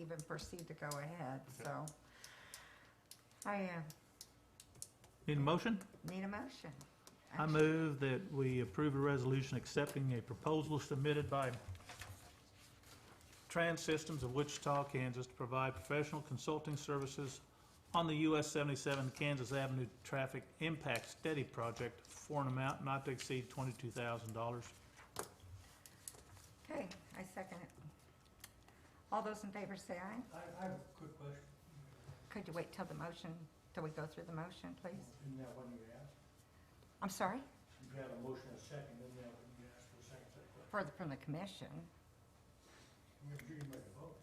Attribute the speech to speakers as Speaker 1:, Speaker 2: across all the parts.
Speaker 1: even proceed to go ahead, so. I uh,
Speaker 2: Need a motion?
Speaker 1: need a motion.
Speaker 2: I move that we approve a resolution accepting a proposal submitted by Trans Systems of Wichita, Kansas to provide professional consulting services on the US 77 Kansas Avenue Traffic Impact Study Project for an amount not to exceed $22,000.
Speaker 1: Okay, I second it. All those in favor say aye.
Speaker 3: I, I have a quick question.
Speaker 1: Could you wait till the motion, till we go through the motion, please?
Speaker 3: Isn't that what you asked?
Speaker 1: I'm sorry,
Speaker 3: You had a motion and a second, isn't that what you asked for a second, second question?
Speaker 1: further from the commission.
Speaker 3: You're getting ready to vote.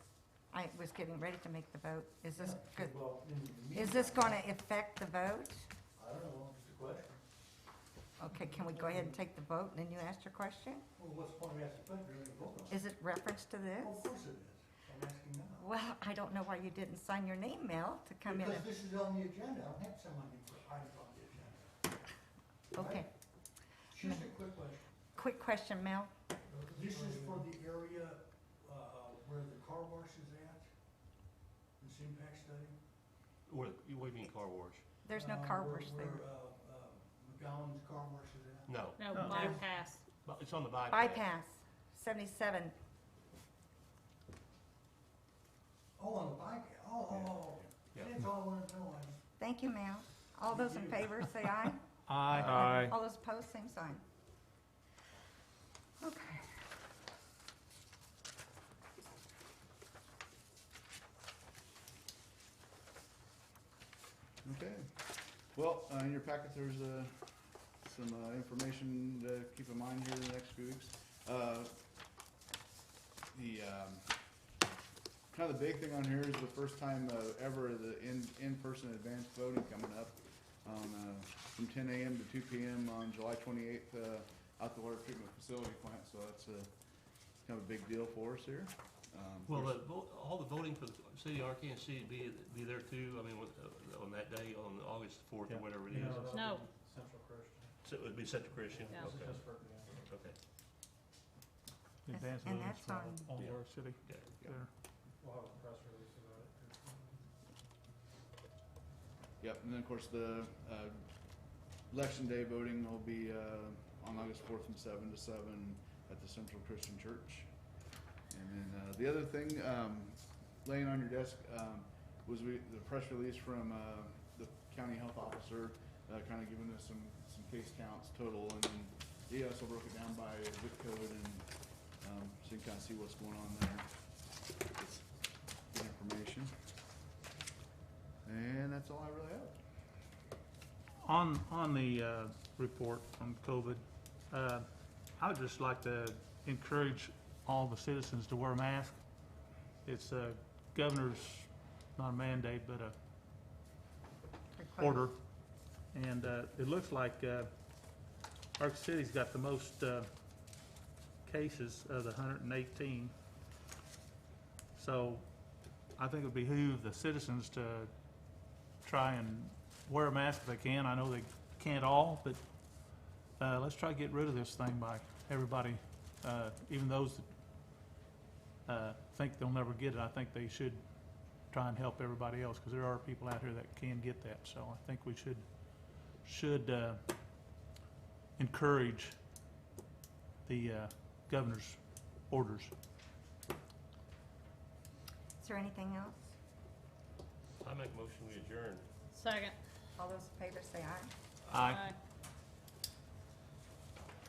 Speaker 1: I was getting ready to make the vote. Is this, good?
Speaker 3: Well, in the
Speaker 1: is this
Speaker 3: meantime,
Speaker 1: gonna affect the vote?
Speaker 3: I don't know, it's a question.
Speaker 1: Okay, can we go ahead and take the vote and then you ask your question?
Speaker 3: Well, what's the point of asking a question, you're gonna vote on it?
Speaker 1: Is it reference to
Speaker 3: Well, Of
Speaker 1: this?
Speaker 3: course it is, I'm asking now.
Speaker 1: Well, I don't know why you didn't sign your name, Mel, to come in.
Speaker 3: Because this is on the agenda, I don't have someone who put items on the agenda.
Speaker 1: Okay,
Speaker 3: It's Just a quick question.
Speaker 1: quick question, Mel.
Speaker 3: This is for the area, uh, where the car wash is at? This impact study?
Speaker 4: What, what do you mean car wash?
Speaker 1: There's no
Speaker 3: Uh,
Speaker 1: car
Speaker 3: where-
Speaker 1: wash there.
Speaker 3: Where, uh, uh, McGowan's car wash is at?
Speaker 4: No,
Speaker 5: No,
Speaker 2: No.
Speaker 5: bypass.
Speaker 4: but it's on the bypass.
Speaker 1: Bypass, seventy-seven.
Speaker 3: Oh, on the bike, oh, oh, oh.
Speaker 4: Yeah.
Speaker 3: That's all I wanted to know, I just
Speaker 1: Thank you, Mel. All those in favor, say aye.
Speaker 2: Aye.
Speaker 1: All those opposed, same sign. Okay.
Speaker 6: Okay. Well, uh, in your packet, there's uh, some uh, information to keep in mind here in the next few weeks. Uh, The, um, kind of the big thing on here is the first time uh, ever the in, in-person advanced voting coming up on, uh, from ten AM to two PM on July twenty-eighth, uh, out the water treatment facility plant, so that's a, kind of a big deal for us here. Um,
Speaker 4: Will the, vo- all the voting for the city of Arkansas City be, be there too? I mean, with, uh, on that day, on August fourth or
Speaker 2: Yeah.
Speaker 4: whatever it is?
Speaker 5: No.
Speaker 3: Central Christian.
Speaker 4: So it would be Central Christian?
Speaker 5: Yeah.
Speaker 4: Okay, okay.
Speaker 2: Advance
Speaker 1: And
Speaker 2: notice
Speaker 1: that's
Speaker 2: for
Speaker 1: on-
Speaker 2: all
Speaker 4: Yeah.
Speaker 2: York uh, City.
Speaker 4: Yeah.
Speaker 2: There.
Speaker 3: We'll have a press release about it.
Speaker 6: Yep, and then of course the uh, election day voting will be uh, on August fourth from seven to seven at the Central Christian Church. And then uh, the other thing um, laying on your desk um, was we, the press release from uh, the county health officer, uh, kind of giving us some some case counts total, and then he also broke it down by zip code and um, so you can kind of see what's going on there. It's good information. And that's all I really have.
Speaker 2: On, on the uh, report on COVID, uh, I would just like to encourage all the citizens to wear a mask. It's a governor's, not a mandate, but a
Speaker 1: Request.
Speaker 2: order. And uh, it looks like uh, Arc City's got the most uh, cases of the 118. So I think it would behoove the citizens to try and wear a mask if they can. I know they can't all, but uh, let's try to get rid of this thing by everybody, uh, even those that uh, think they'll never get it. I think they should try and help everybody else, because there are people out here that can get that. So I think we should, should uh, encourage the uh, governor's orders.
Speaker 1: Is there anything else?
Speaker 4: I make motion we adjourn.
Speaker 5: Second.
Speaker 1: All those in favor, say aye.
Speaker 5: Aye.